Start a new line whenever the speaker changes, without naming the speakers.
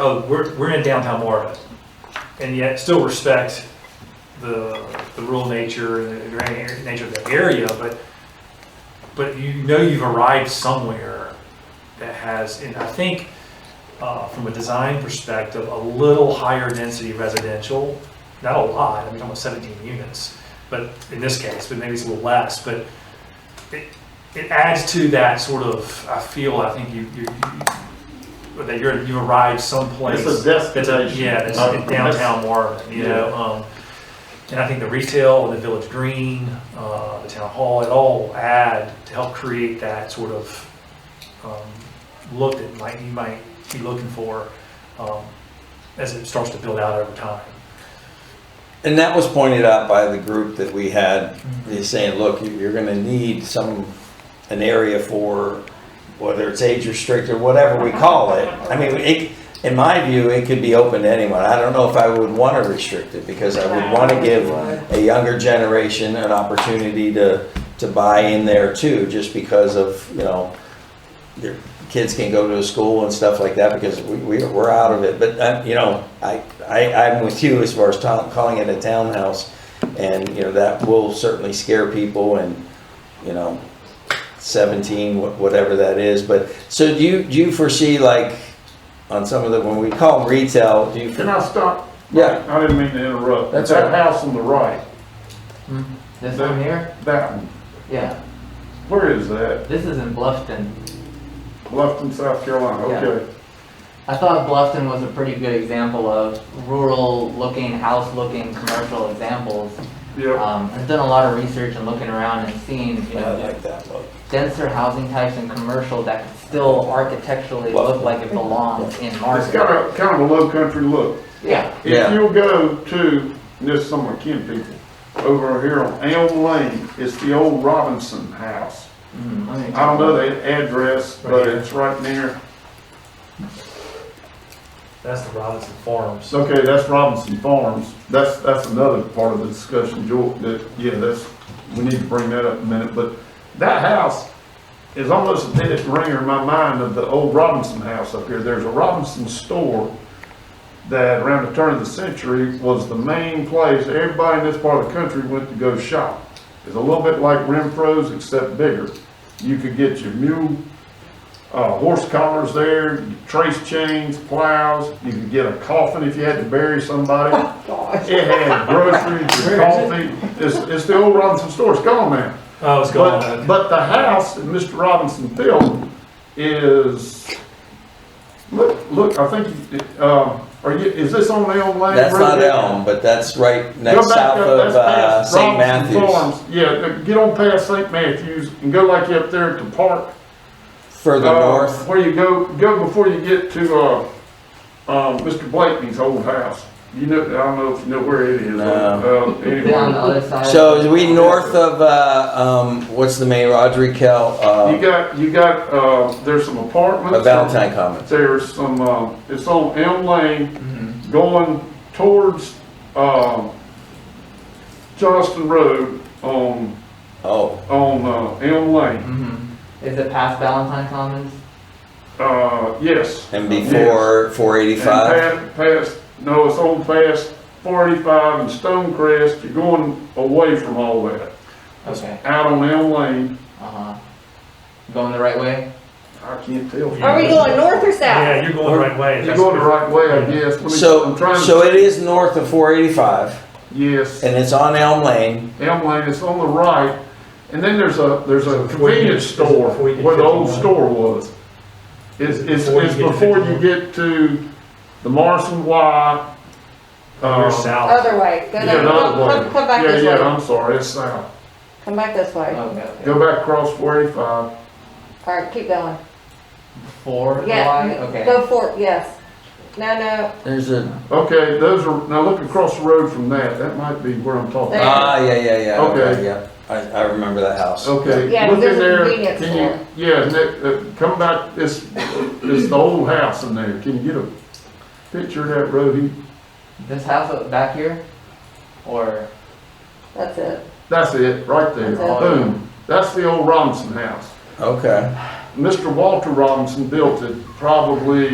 oh, we're, we're in downtown Marvin, and yet still respect the, the rural nature and the grand area- nature of the area, but, but you know you've arrived somewhere that has, and I think, uh, from a design perspective, a little higher density residential, not a lot, I mean, almost seventeen units, but in this case, but maybe it's a little less, but it, it adds to that sort of, I feel, I think you, you, you- that you're, you arrived someplace.
It's a
It's a,
destination.
yeah, it's
Uh,
in downtown Marvin, you know, um, and I think the retail, the Village Green, uh, the Town Hall, it all add to help create that sort of, um, look that might, you might be looking for, um, as it starts to build out over time.
And that was pointed out by the group that we had, they saying, look, you- you're gonna need some, an area for, whether it's age restricted, whatever we call it. I mean, it, in my view, it could be open to anyone. I don't know if I would wanna restrict it, because I would wanna give a younger generation an opportunity to, to buy in there too, just because of, you know, their kids can go to a school and stuff like that because we, we, we're out of it. But, uh, you know, I, I, I'm with you as far as ta- calling it a townhouse. And, you know, that will certainly scare people and, you know, seventeen, wha- whatever that is. But, so do you, do you foresee like, on some of the, when we call retail, do you?
Can I stop?
Yeah,
I didn't mean to interrupt.
That's all
That
right.
house on the right,
This one here?
that one,
Yeah,
where is that?
this is in Bluffton.
Bluffton, South Carolina,
Yeah.
okay.
I thought Bluffton was a pretty good example of rural-looking, house-looking, commercial examples.
Yep,
Um, I've done a lot of research and looking around and seeing, you
I
know,
like that look.
denser housing types and commercial that could still architecturally look like it belongs in
Uh,
it's
Marvin.
got a, kind of a low country look.
Yeah,
Yeah.
If you'll go to, this is some of my kin people, over here on Elm Lane, it's the old Robinson House.
Mm, let me-
I don't know the address,
Right
but
here.
it's right near,
That's the Robinson Farms.
okay, that's Robinson Farms. That's, that's another part of the discussion, George, that, yeah, that's, we need to bring that up in a minute, but that house is almost a dead ringer in my mind of the old Robinson House up here. There's a Robinson store that around the turn of the century was the main place everybody in this part of the country went to go shop. It's a little bit like Renfro's except bigger. You could get your mule, uh, horse collars there, your trace chains, plows, you could get a coffin if you had to bury somebody. It had groceries, your coffee, it's, it's the old Robinson store, it's gone now.
Oh, it's going
But,
on.
but the house that Mr. Robinson built is, look, look, I think, um, are you, is this on Elm Lane?
That's not
Road?
Elm, but that's right
Go
next
back up,
south of
that's
uh,
past Robinson
St. Matthews,
Farms. Yeah, get on past St. Matthews and go like up there at the park.
further
uh,
north.
Where you go, go before you get to, uh, um, Mr. Blakeney's old house. You know, I don't know if you know where it is.
No.
Uh, anyway.
Down the other side.
So is we north of, uh, um, what's the main, Audrey Kell,
You
uh,
got, you got, uh, there's some apartments.
uh, Valentine Commons?
There's some, uh, it's on Elm Lane
Mhm.
Mm-hmm.
going towards, um, Johnston Road on,
Oh,
on, uh, Elm Lane.
Mhm. Is it past Valentine Commons?
Uh, yes.
and before four
And
eighty-five?
pa- Past, no, it's on past forty-five and Stone Crest. You're going away from all that.
Okay,
Out on Elm Lane.
uh-huh. Going the right way?
I can't tell.
Are we going north or south?
Yeah, you're going the right way.
You're going the right way, I guess. Let me-
So,
I'm trying to-
so it is north of four eighty-five,
Yes.
and it's on Elm Lane,
Elm Lane, it's on the right, and then there's a, there's
So
a
before you
convenience
get- is it
store
before you get
where the old
51?
store was. It's, it's,
Before you
it's
get to
before you
51?
get to the Morrison Y.
You're
uh,
south.
Other way, go
Yeah,
down,
the other
come,
way.
come- come back
Yeah,
this
yeah, Uh,
way,
I'm sorry, it's south.
come back this way.
Okay, okay.
Go back across four eighty-five.
Alright, keep going.
Four, Y,
Yeah,
okay.
go for, yes. No, no,
there's a,
Okay, those are, now look across the road from that, that might be where I'm talking. about.
ah, yeah, yeah,
Okay.
yeah,
Oh.
okay, yeah, I, I remember that house.
Okay.
Yeah,
look in
there's a
there.
convenience
Can you-
store.
Yeah, Nick, uh, come back, it's, it's the old house in there, can you get a picture of that road? He-
This house up back here? Or,
that's it.
That's it, right there,
That's it.
boom. That's the old Robinson house.
Okay.
Mr. Walter Robinson built it probably